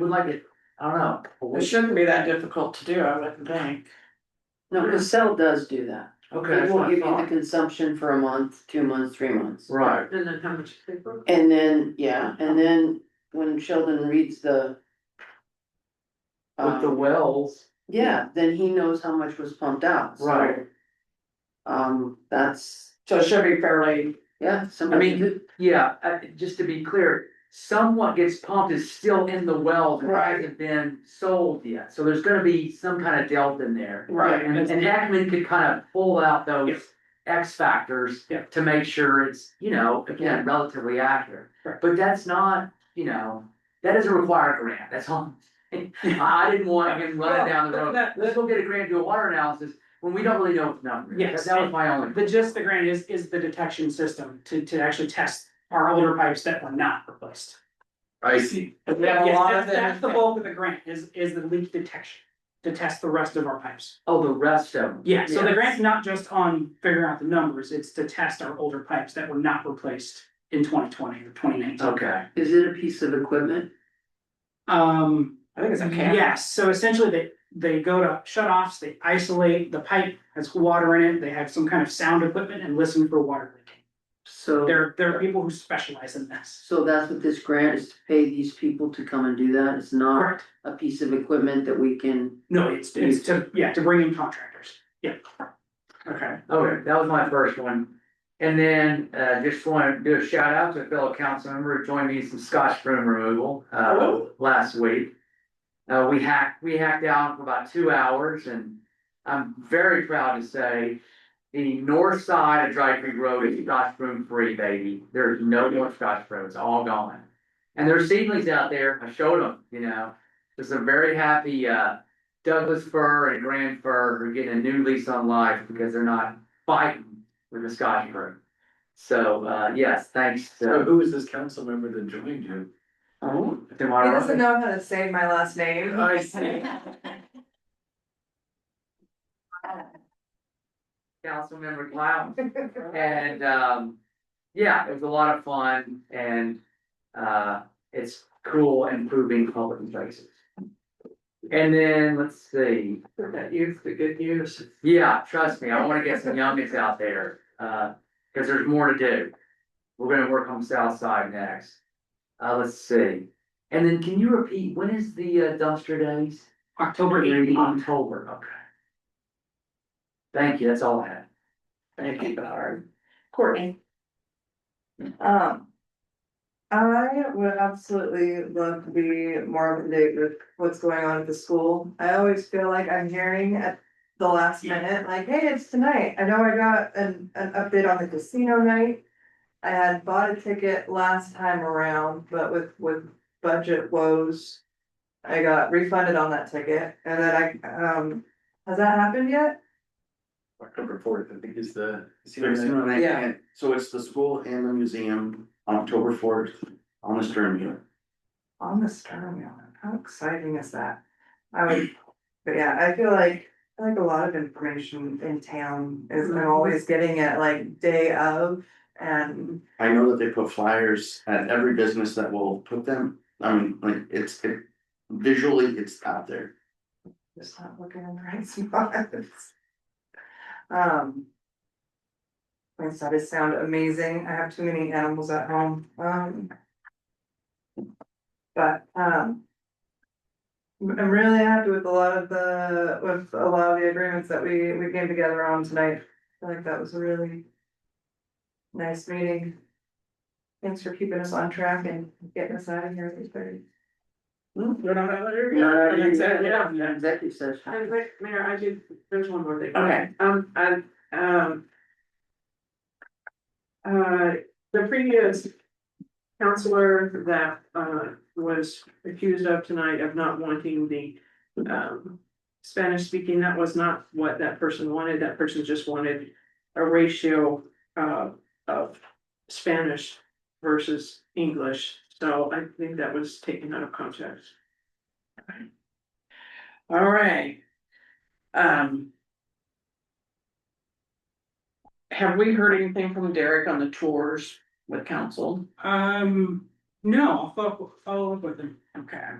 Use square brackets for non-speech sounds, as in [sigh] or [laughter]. would like it, I don't know. It shouldn't be that difficult to do, I wouldn't think. No, Casell does do that. Okay, It that's will what I give you the thought. consumption for a month, two months, three months. Right, And then how much paper? And then, yeah, and then when Sheldon reads the. with the um, wells, yeah, then he knows how much was pumped out, so, right, um, that's, So it should be fairly, yeah, I somebody mean, did. yeah, uh, just to be clear. Somewhat gets pumped is still in the wells and Right. hasn't been sold yet, so there's gonna be some kind of delta in there. right, And and and Ackman could kind of pull out those Yes. X factors Yeah. to make sure it's, you know, again, relatively accurate. Correct. But that's not, you know, that doesn't require a grant, that's all. [laughs] I didn't want him running down the Well, road, that- let's go get a grant, do a water analysis, when we don't really know if numbers. Yes. That was my only. The gist of the grant is, is the detection system to, to actually test our older pipes that were not replaced. I see. but we have a Yes, lot of that's, them. that's the bulk of the grant, is, is the leak detection, to test the rest of our pipes. Oh, the rest of them. Yeah, so the Yes. grant's not just on figuring out the numbers, it's to test our older pipes that were not replaced in twenty twenty or twenty nineteen. Okay, Is it a piece of equipment? Um, I think it's a can. Yes, so essentially they, they go to shut offs, they isolate, the pipe has water in it, they have some kind of sound equipment and listen for water leaking. So, There, there are people who specialize in this. so that's what this grant is to pay these people to come and do that, it's not Correct? a piece of equipment that we can. No, it's, it's to, yeah, to bring in contractors, yeah. okay, Oh, okay, that was my first one. And then, uh, just wanna do a shout out to a fellow council member who joined me in some scotch broom removal, uh, Oh. last week. Uh, we hacked, we hacked down for about two hours and I'm very proud to say. The north side of Dry Creek Road is scotch broom free, baby, there's no more scotch broom, it's all gone. And there's seedlings out there, I showed them, you know, there's a very happy, uh, Douglas fir and grand fir are getting a new lease on life because they're not fighting with the Scotch fir. So, uh, yes, thanks So to who is this council member that joined you? He tomorrow. doesn't know how to say my last name. I see. Councilmember Cloud. And, um, yeah, it was a lot of fun and, uh, it's cool improving public places. And then, let's see, That youth, the good news. yeah, trust me, I wanna get some youngins out there, uh, cause there's more to do. We're gonna work on South Side next. Uh, let's see, and then can you repeat, when is the uh, dumpster days? October eighteenth, October, okay. Thank you, that's all I had. Thank you, Howard. Courtney. Um. I would absolutely love to be more up to date with what's going on at the school. I always feel like I'm hearing at the last minute, like, hey, it's tonight. I know I got an, an update on the casino night. I had bought a ticket last time around, but with, with budget woes. I got refunded on that ticket and then I, um, has that happened yet? October fourth, I think is the. Yeah. So it's the school and the museum on October fourth on the Stern Muir. on the Stern Wheel. How exciting is that? I would, but yeah, I feel like, I feel like a lot of information in town is I'm always getting it like day of. And I know that they put flyers at every business that will put them, I mean, like, it's, it, visually, it's out there. just not looking in the right spots. Um. My studies sound amazing. I have too many animals at home, um. But, um. I'm I'm really happy with a lot of the, with a lot of the agreements that we, we came together on tonight. I feel like that was a really. Nice meeting. Thanks for keeping us on track and getting us out of here at eight thirty. we're not out there yet. No, no, Exactly, yeah, yeah, yeah, yeah. Executive session. And wait, Mayor, I do, there's one more thing. Okay. Um, and, um. Uh, the previous counselor that, uh, was accused of tonight of not wanting the, um. Spanish speaking, that was not what that person wanted, that person just wanted a ratio, uh, of Spanish versus English. So I think that was taken out of context. All right. Um. Have we heard anything from Derek on the tours with council? Um, no, I'll follow, follow up with them. Okay.